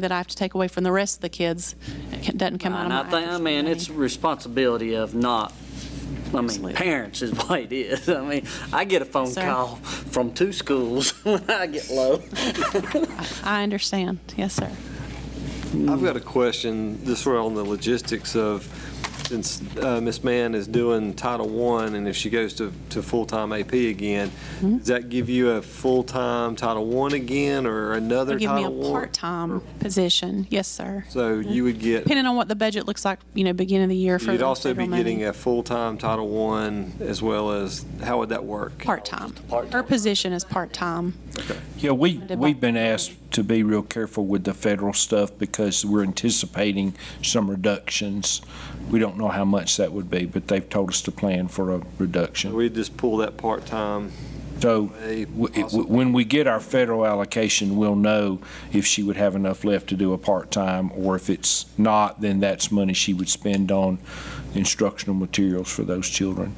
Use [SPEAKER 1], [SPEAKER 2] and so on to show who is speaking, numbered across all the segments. [SPEAKER 1] that I have to take away from the rest of the kids. It ca- doesn't come out of
[SPEAKER 2] And
[SPEAKER 1] my
[SPEAKER 2] I think, I
[SPEAKER 1] after-school
[SPEAKER 2] mean,
[SPEAKER 1] money.
[SPEAKER 2] it's responsibility of not, I mean,
[SPEAKER 1] Absolutely.
[SPEAKER 2] parents is what it is. I mean, I get a phone
[SPEAKER 1] Sir.
[SPEAKER 2] call from two schools when I get low.
[SPEAKER 1] I understand. Yes, sir.
[SPEAKER 3] I've got a question, just sort of on the logistics of, since uh, Ms. Mann is doing Title I, and if she goes to, to full-time AP again,
[SPEAKER 1] Mm-hmm.
[SPEAKER 3] does that give you a full-time Title I again, or another
[SPEAKER 1] Give me
[SPEAKER 3] Title I?
[SPEAKER 1] a part-time position. Yes, sir.
[SPEAKER 3] So you would get,
[SPEAKER 1] Depending on what the budget looks like, you know, beginning of the year for
[SPEAKER 3] you'd
[SPEAKER 1] the
[SPEAKER 3] also be
[SPEAKER 1] federal money.
[SPEAKER 3] getting a full-time Title I, as well as, how would that work?
[SPEAKER 1] Part-time. Her position is part-time.
[SPEAKER 4] Yeah, we,
[SPEAKER 1] Funded by-
[SPEAKER 4] we've been asked to be real careful with the federal stuff because we're anticipating some reductions. We don't know how much that would be, but they've told us to plan for a reduction.
[SPEAKER 3] We'd just pull that part-time,
[SPEAKER 4] So
[SPEAKER 3] a
[SPEAKER 4] w- it-
[SPEAKER 3] possible-
[SPEAKER 4] w- when we get our federal allocation, we'll know if she would have enough left to do a part-time, or if it's not, then that's money she would spend on instructional materials for those children.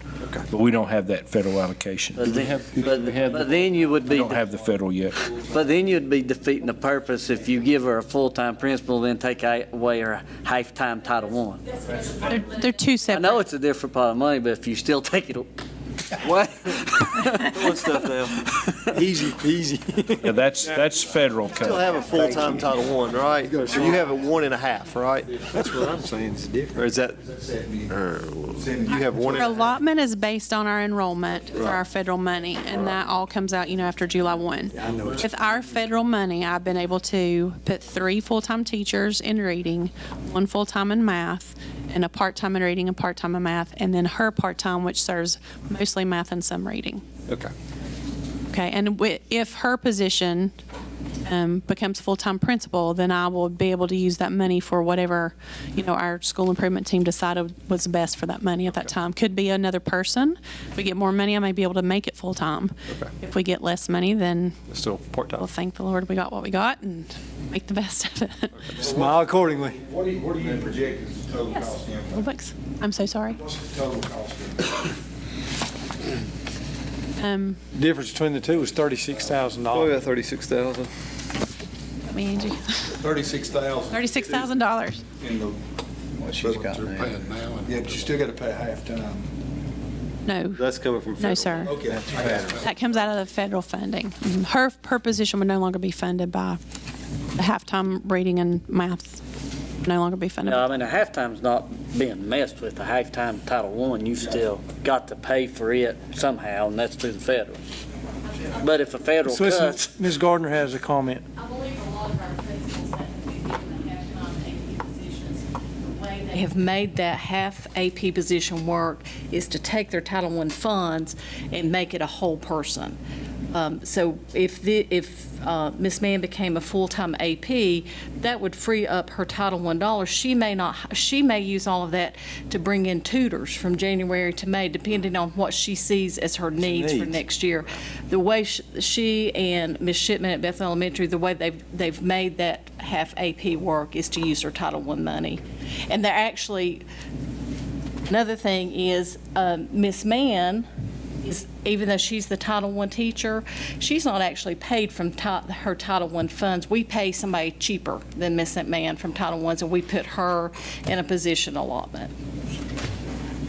[SPEAKER 4] But we don't have that federal allocation.
[SPEAKER 2] But then- But but
[SPEAKER 4] We
[SPEAKER 2] then you would be,
[SPEAKER 4] don't have the federal yet.
[SPEAKER 2] but then you'd be defeating the purpose if you give her a full-time principal, then take away her half-time Title One.
[SPEAKER 1] They're, they're two
[SPEAKER 2] I know
[SPEAKER 1] separate.
[SPEAKER 2] it's a different pot of money, but if you still take it,
[SPEAKER 3] what? Doing stuff now. Easy, easy.
[SPEAKER 4] Yeah, that's, that's federal cut.
[SPEAKER 3] Still have a full-time Title I, right? Or you have a one and a half, right?
[SPEAKER 5] That's what I'm saying, it's
[SPEAKER 3] Or
[SPEAKER 5] different.
[SPEAKER 3] is that, you have
[SPEAKER 1] Our
[SPEAKER 3] one and a half?
[SPEAKER 1] allotment is based on our enrollment for our federal money, and that all comes out, you know, after July 1.
[SPEAKER 5] I know it's-
[SPEAKER 1] With our federal money, I've been able to put three full-time teachers in reading, one full-time in math, and a part-time in reading and part-time in math, and then her part-time, which serves mostly math and some reading.
[SPEAKER 3] Okay.
[SPEAKER 1] Okay, and wi- if her position um, becomes full-time principal, then I will be able to use that money for whatever, you know, our school improvement team decided was best for that money at that time. Could be another person. If we get more money, I may be able to make it full-time. If we get less money, then
[SPEAKER 3] Still part-time.
[SPEAKER 1] we'll thank the Lord we got what we got and make the best of it.
[SPEAKER 5] Smile accordingly.
[SPEAKER 6] What do you, what do you project as the total
[SPEAKER 1] Yes.
[SPEAKER 6] cost impact?
[SPEAKER 1] Looks- I'm so sorry.
[SPEAKER 6] What's the total cost impact?
[SPEAKER 1] Um,
[SPEAKER 5] Difference between the two is thirty-six thousand
[SPEAKER 3] Probably
[SPEAKER 5] dollars.
[SPEAKER 3] about thirty-six thousand.
[SPEAKER 1] let me, Angie,
[SPEAKER 7] Thirty-six thousand.
[SPEAKER 1] $36,000.
[SPEAKER 6] In the,
[SPEAKER 7] What she's got now.
[SPEAKER 6] yeah, but you still gotta pay half time.
[SPEAKER 1] No,
[SPEAKER 3] That's coming from
[SPEAKER 1] no,
[SPEAKER 3] federal.
[SPEAKER 1] sir.
[SPEAKER 6] Okay. I got it.
[SPEAKER 1] That comes out of the federal funding. Her, her position would no longer be funded by the halftime reading and math, no longer be funded.
[SPEAKER 2] No, I
[SPEAKER 1] by-
[SPEAKER 2] mean, a halftime's not being messed with. A halftime Title One, you still got to pay for it somehow, and that's through the federal. But if a federal
[SPEAKER 5] So listen,
[SPEAKER 2] cuts,
[SPEAKER 5] Ms. Gardner has a comment.
[SPEAKER 8] I believe a lot of our principals that have been given half-time AP positions, the way they have made that half AP position work is to take their Title I funds and make it a whole person. Um, So if the, if uh, Ms. Mann became a full-time AP, that would free up her Title I dollars. She may not, she may use all of that to bring in tutors from January to May, depending on what she sees as her needs for
[SPEAKER 5] needs.
[SPEAKER 8] next year. The way sh- she and Ms. Shipman at Bethel Elementary, the way they've, they've made that half AP work is to use her Title I money. And they're actually, another thing is, um, Ms. Mann, is, even though she's the Title I teacher, she's not actually paid from ti- her Title I funds. We pay somebody cheaper than Ms. Mann from Title I's, and we put her in a position allotment.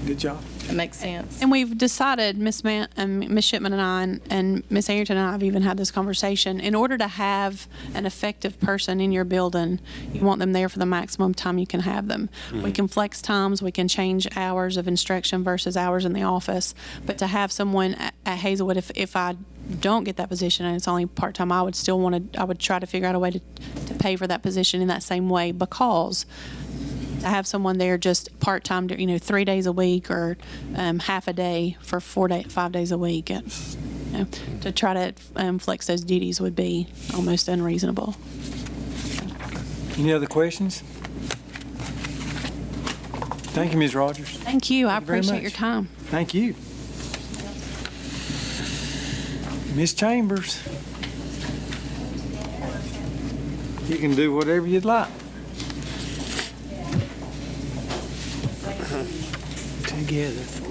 [SPEAKER 5] Good job.
[SPEAKER 8] That makes sense?
[SPEAKER 1] And we've decided, Miss Man, um, Ms. Shipman and I, and- and Miss Arrington and I have even had this conversation, in order to have an effective person in your building, you want them there for the maximum time you can have them. We can flex times, we can change hours of instruction versus hours in the office, but to have someone at at Hazelwood, if, if I don't get that position and it's only part-time, I would still want to, I would try to figure out a way to, to pay for that position in that same way because to have someone there just part-time, you know, three days a week or um, half a day for four day, five days a week. And, you know, to try to um, flex those duties would be almost unreasonable.
[SPEAKER 5] Any other questions? Thank you, Ms. Rogers.
[SPEAKER 1] Thank you. I
[SPEAKER 5] Thank you very
[SPEAKER 1] appreciate
[SPEAKER 5] much.
[SPEAKER 1] your time.
[SPEAKER 5] Thank you. Ms. Chambers. You can do whatever you'd like. Together for